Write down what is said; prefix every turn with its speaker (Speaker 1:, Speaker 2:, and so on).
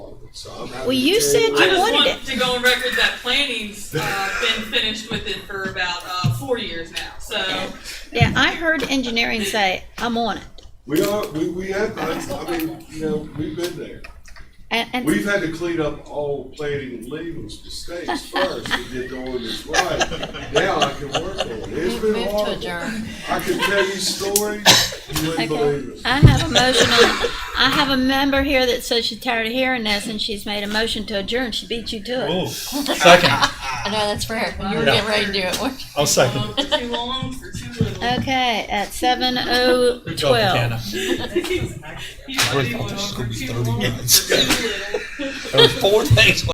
Speaker 1: So I'm happy
Speaker 2: Well, you
Speaker 1: to tell
Speaker 2: said
Speaker 3: I
Speaker 2: you
Speaker 3: just
Speaker 2: wanted
Speaker 3: want
Speaker 2: it.
Speaker 3: to go on record that planning's uh, been finished with it for about uh, four years now. So
Speaker 2: Yeah, I heard engineering say, I'm on it.
Speaker 1: We are, we, we have, I I mean, you know, we've been there.
Speaker 2: And, and
Speaker 1: We've had to clean up all planning labels, mistakes first to get the ordinance right. Now I can work on it. It's been
Speaker 4: Move to
Speaker 1: horrible.
Speaker 4: adjourn.
Speaker 1: I can tell you stories, you wouldn't believe it.
Speaker 2: I have a motion on, I have a member here that says she's tired of hearing this and she's made a motion to adjourn. She beat you to it.
Speaker 5: Ooh, second.
Speaker 4: I know, that's fair. You were
Speaker 5: Yeah.
Speaker 4: getting ready to do it, weren't you?
Speaker 5: I'll second.
Speaker 3: um, for too long, for too little.
Speaker 2: Okay, at seven oh
Speaker 5: Good job,
Speaker 2: twelve.
Speaker 5: Deanna.
Speaker 3: You already went on for too long, for too little.
Speaker 5: There was four things